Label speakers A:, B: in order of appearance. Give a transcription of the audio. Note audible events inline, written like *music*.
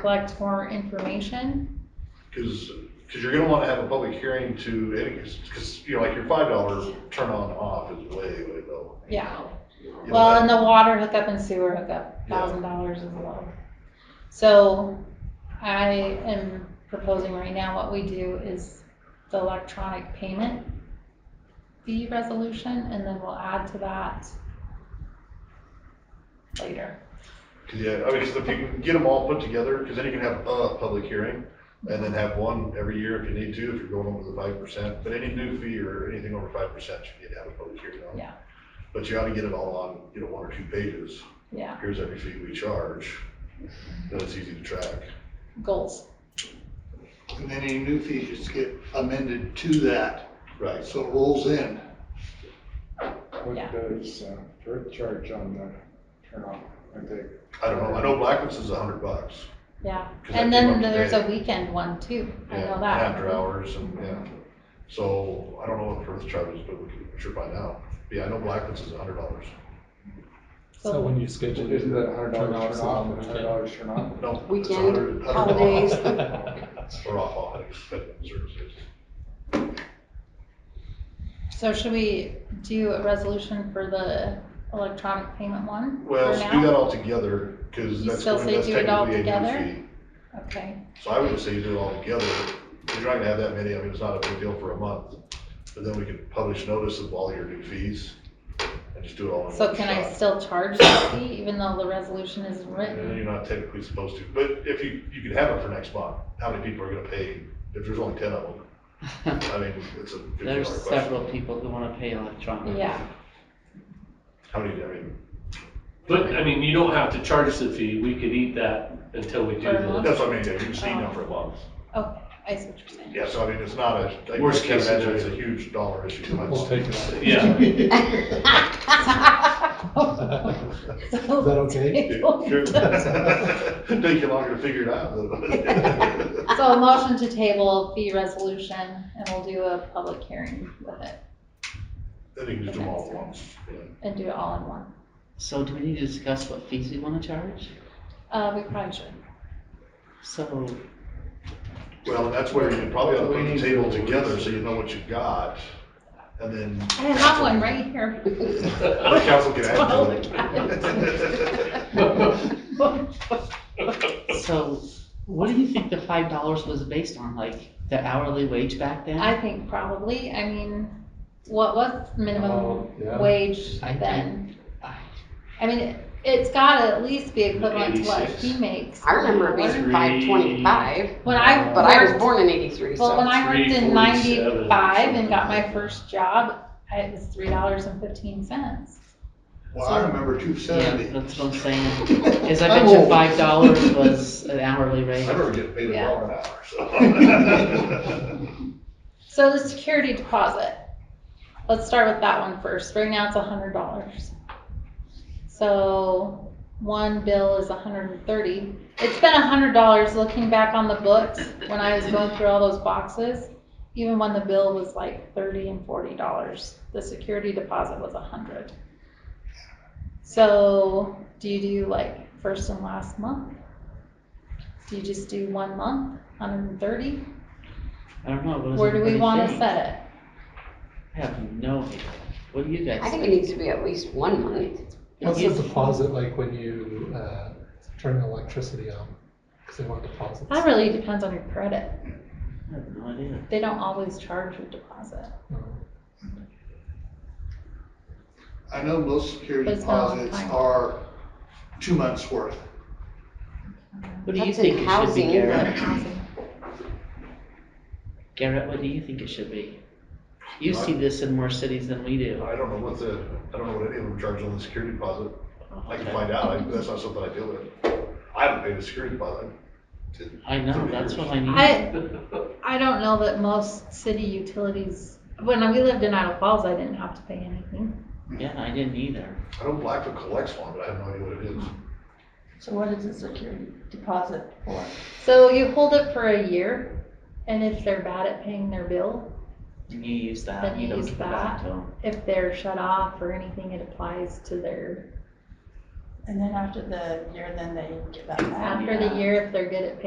A: collect more information.
B: Because, because you're gonna wanna have a public hearing to, because, because, you know, like your five dollar turn on off is way, way low.
A: Yeah.
B: You know,
A: Well, and
B: that-
A: the water hookup and sewer hookup,
B: Yeah.
A: thousand dollars as well. So I am proposing right now, what we do is the electronic payment fee resolution, and then we'll add to that later.
B: 'cause, yeah, I mean, 'cause if you can get them all put together, because then you can have a public hearing and then have one every year if you need to, if you're going over the five percent. But any new fee or anything over five percent, you need to have a public hearing on.
A: Yeah.
B: But you ought to get it all on, you know, one or two pages.
A: Yeah,
B: Here's every fee we charge. Then it's easy to track.
A: goals.
C: And then any new fees just get amended to that,
B: Right.
C: so it rolls in.
D: What
A: Yeah.
D: does uh, Perth charge on the turn off? Are they,
B: I don't know. I know Blackwood's is a hundred bucks.
A: Yeah,
B: 'cause
A: and
B: that came
A: then
B: up
A: there's
B: today.
A: a weekend one too, I
B: Yeah,
A: know that.
B: After hours and, yeah. So I don't know what Perth charges, but we can sure find out. Yeah, I know Blackwood's is a hundred dollars.
E: So when you schedule.
D: isn't that a hundred dollar
E: Turn off
D: turn off and a hundred
E: someone,
D: dollar turn off?
B: No. it's
F: Weekend,
B: $100 $100 off.
E: *laughs*
F: holidays.
B: *laughs* Or off holidays, *laughs* but services.
A: So should we do a resolution for the electronic payment one?
B: Well,
A: for
B: so
A: now?
B: do that all together, because
A: You
B: that's,
A: still
B: gonna-
A: say
B: that's
A: do it all
B: technically a
A: together?
B: new fee.
A: Okay,
B: So I would just say do it all together. You're not gonna have that many. I mean, it's not a big deal for a month. But then we can publish notice of all your new fees and just do it all in one
A: so can I
B: shot.
A: still charge that fee even though the resolution isn't
B: And
A: written?
B: you're not technically supposed to, but if you, you could have it for next month, how many people are gonna pay, if there's only ten of
A: *laughs*
B: them? I mean, it's a fifty dollar
G: There's
B: question.
G: several people who wanna pay electronically.
A: Yeah,
B: How many, I mean,
H: But, I mean, you don't have to charge the fee, we could eat that until we do
A: For a month?
H: the,
B: that's what I mean, yeah, you can just need them for a month.
A: okay, I see what you're
B: *laughs*
A: saying.
B: Yeah, so I mean, it's not a, I just
H: Worst
B: can't
H: case
B: imagine it's a
H: scenario.
B: huge dollar issue.
E: We'll take
B: *laughs*
E: it.
H: yeah.
A: *laughs*
E: Is that okay?
B: Sure. *laughs* Take you longer to figure it out. though.
A: So a motion to table fee resolution and we'll do a public hearing with it
B: *laughs* Then you can just do them all at once. yeah.
A: and do it all in one.
G: So do we need to discuss what fees we wanna charge?
A: Uh, we probably should. *laughs*
G: So,
B: Well, that's where you probably ought to put
D: We
B: the
D: need
B: table
D: to-
B: together, so you know what you've got, and then
A: I have one right here. *laughs*
B: the council can add
A: Follow
B: to
A: the
B: it. *laughs*
G: so what do you think the five dollars was based on, like the hourly wage back then?
A: I think probably, I mean, what was minimum
E: Oh, yeah.
A: wage
G: I
A: then?
G: I-
A: I mean, it- it's gotta at least be equivalent to what
H: 86.
A: he makes.
F: I remember it being
H: Three.
F: five twenty-five,
A: When I
F: but I was
A: worked,
F: born in eighty-three,
A: well, when
F: so.
A: I worked in
H: 347 or
A: ninety-five and got
H: something
A: my
H: like that.
A: first job, I- it was three dollars and fifteen cents.
C: Well, I remember two
G: Yeah,
C: seventy.
G: that's what I'm saying, is I bet you
B: *laughs*
G: five dollars was an hourly
B: I
G: rate.
B: remember getting paid a
A: Yeah.
B: dollar an hour,
G: *laughs*
B: so.
A: So the security deposit, let's start with that one first. Right now it's hundred dollars. So one bill is $130. thirty. It's been hundred dollars looking back on the books when I was going through all those boxes. Even when the bill was like thirty and forty dollars, the security deposit was a hundred. So do you do like first and last month? Do you just do one month, hundred and thirty?
G: I don't know, what does
A: Where do we
G: everybody
A: wanna
G: think?
A: set it?
G: I have no idea, what do you guys
F: I think
G: think?
F: it needs to be at least one month.
E: What's the deposit like when you, uh, turn the electricity on? Cause they want deposits.
A: That really depends on your credit.
G: I have no idea.
A: They don't always charge a
G: *laughs*
A: deposit.
C: I know most security
A: But it's not all the
C: deposits
A: time.
C: are two months' worth.
G: What do you
F: That's in
G: think it should be,
F: housing,
G: Garrett? Garrett, what do you think it should be? You see this in more cities than we do.
B: I don't know what the, I don't know what any of them charge on the security deposit. I can find out. I- That's not something I deal with. I haven't paid a security deposit.
G: I know, that's what I need.
A: I, I don't know that most city utilities, when we lived in Idle Falls, I didn't have to pay anything.
G: Yeah, I didn't either.
B: I know Blackfoot collects one, but I have no idea what it is.
I: So what is a security deposit for?
A: So you hold it for a year, and if they're bad at paying their bill,
G: And you use that,
A: Then
G: you
A: you
G: don't
A: use
G: give it back
A: that.
G: to 'em.
A: if they're shut off or anything, it applies to their
J: And then after the year, then they get that back.
C: After the year, if they're good at paying